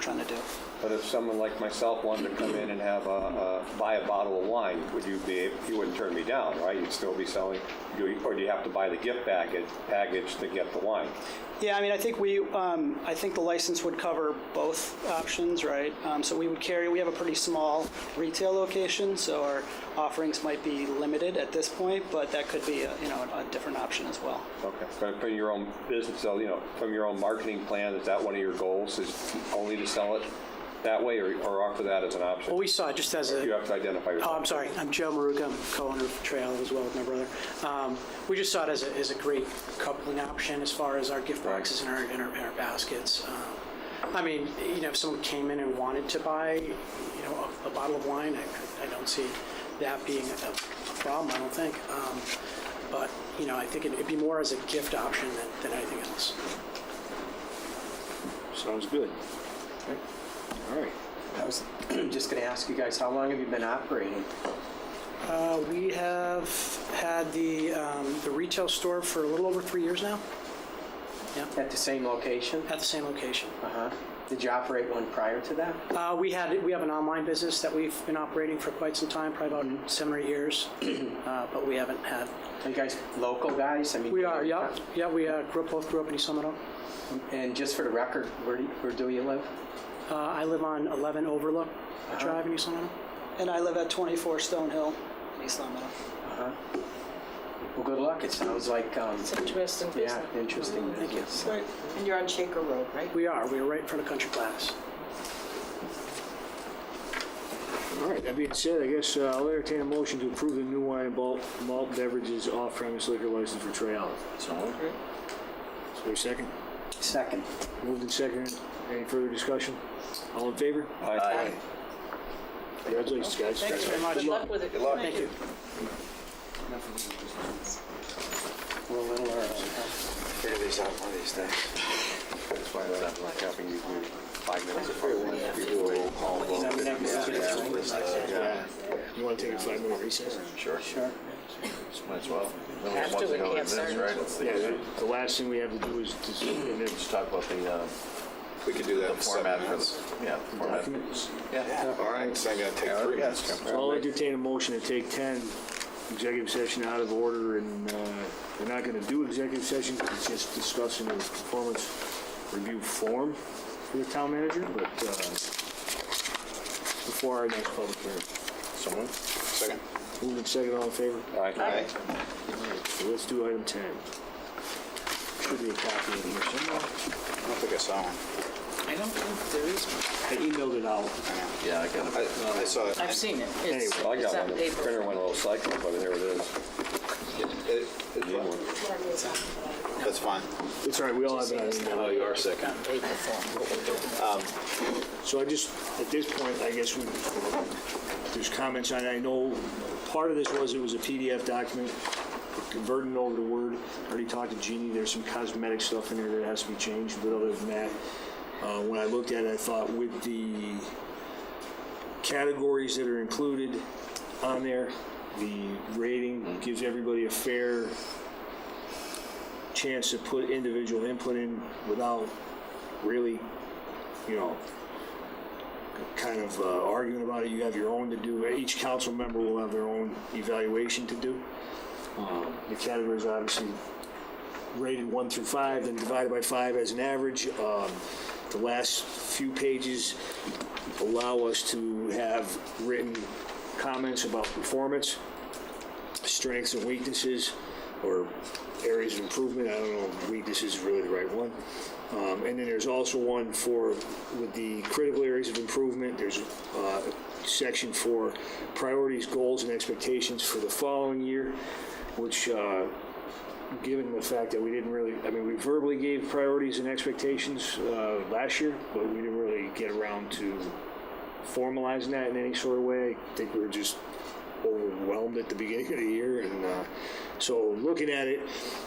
trying to do. But if someone like myself wanted to come in and have a, a, buy a bottle of wine, would you be, you wouldn't turn me down, right? You'd still be selling, do you- or do you have to buy the gift package, package to get the wine? Yeah, I mean, I think we, um, I think the license would cover both options, right? Um, so we would carry, we have a pretty small retail location, so our offerings might be limited at this point, but that could be, a, you know, a, a different option as well. Okay, but from your own business, so, you know, from your own marketing plan, is that one of your goals, is only to sell it that way or, or offer that as an option? Well, we saw it just as a. You have to identify yourself. Oh, I'm sorry. I'm Joe Maruga. I'm co-owner of Trail as well with my brother. Um, we just saw it as a, as a great coupling option as far as our gift boxes and our, and our, and our baskets. Um, I mean, you know, if someone came in and wanted to buy, you know, a, a bottle of wine, I, I don't see that being a, a problem. I don't think. Um, but you know, I think it'd be more as a gift option than, than anything else. Sounds good. All right. I was just going to ask you guys, how long have you been operating? Uh, we have had the um, the retail store for a little over three years now At the same location? at the same location. Uh-huh. Did you operate one prior to that? Uh, we had we have an online business that we've been operating for quite some time, probably about seven or eight years, uh, but we haven't had. Are you guys local guys? I mean, We are, yeah, yeah. We uh, grew up, both grew up in East Almetto. And just for the record, where do you, where do you live? Uh, I live on 11 Overlook Uh-huh. Drive in East Almetto. And I live at 24 Stonehill in East Long Meadow. Uh-huh. Well, good luck. It sounds like, um, It's interesting yeah, business. interesting business. And you're on Shaker Road, right? We are. We are right in front of Country Glass. All right, that being said, I guess uh, I'll entertain a motion to approve the new wine and malt, malt beverages off-premise liquor license for Trey Olive. So moved. Is there a second? Second. Moved and seconded. Any further discussion? All in favor? Um, Aye. Congratulations, guys. Thanks very much. Good luck with it. Good luck. Thank you. We're a little early. Figure these out one of these days. That's why they're not like helping you do five minutes of fire one, you do a roll call vote. that next Yeah, week? yeah, yeah, yeah, You want to take a five-minute recess? Sure. Sure. Might as well. No Have one wants to, to we go in can't this, right? Let's Yeah, just- the- the last thing we have to do is, dis- and then- Just talk about the, uh, We could do that the in seven format for minutes. the, yeah, the format. Yeah. All right, so I'm gonna take three minutes. I'll entertain a motion to take 10 executive session out of order, and uh, we're not going to do executive session, it's just discussing the performance review form for the town manager, but uh, before our next public hearing. Someone? Second. Moved and second, all in favor? Aye. So let's do item 10. Should be a copy in here somewhere. I don't think I saw one. I don't think there is one. I emailed it out. Yeah, I got it. I, I saw it. I've seen it. It's, Well, I it's got on one, the paper. printer went a little cyclical, but there it is. It- it's fine. That's fine. It's all right, we all have it on email. Oh, you are second. On paper form. So I just, at this point, I guess we, there's comments on, it. I know, part of this was it was a PDF document, converting it over to Word. Already talked to Jeannie, there's some cosmetic stuff in there that has to be changed, but other than that, uh, when I looked at it, I thought with the categories that are included on there, the rating gives everybody a fair chance to put individual input in without really you know, kind of uh, arguing about it. You have your own to do. Each council member will have their own evaluation to do. Um, The categories are obviously rated one through five, then divided by five as an average. Um, The last few pages allow us to have written comments about performance, strengths and weaknesses, or areas of improvement. I don't know if weakness is really the right one. Um, and then there's also one for with the critical areas of improvement. There's uh, a section for priorities, goals, and expectations for the following year, which, uh, given the fact that we didn't really, I mean, we verbally gave priorities and expectations uh, last year, but we didn't really get around to formalizing that in any sort of way. I think we were just overwhelmed at the beginning of the year, and uh, so looking at it,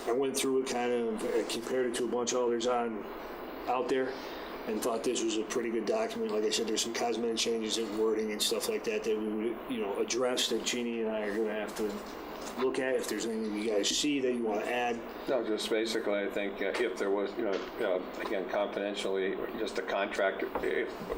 I went through it kind of I compared it to a bunch of others on out there, and thought this was a pretty good document. Like I said, there's some cosmetic changes in wording and stuff like that that we would, you know, address that Jeannie and I are gonna have to look at. If there's anything you guys see that you wanna add, No, just basically, I think uh, if there was, you know, uh, again, confidentially, just a contract, if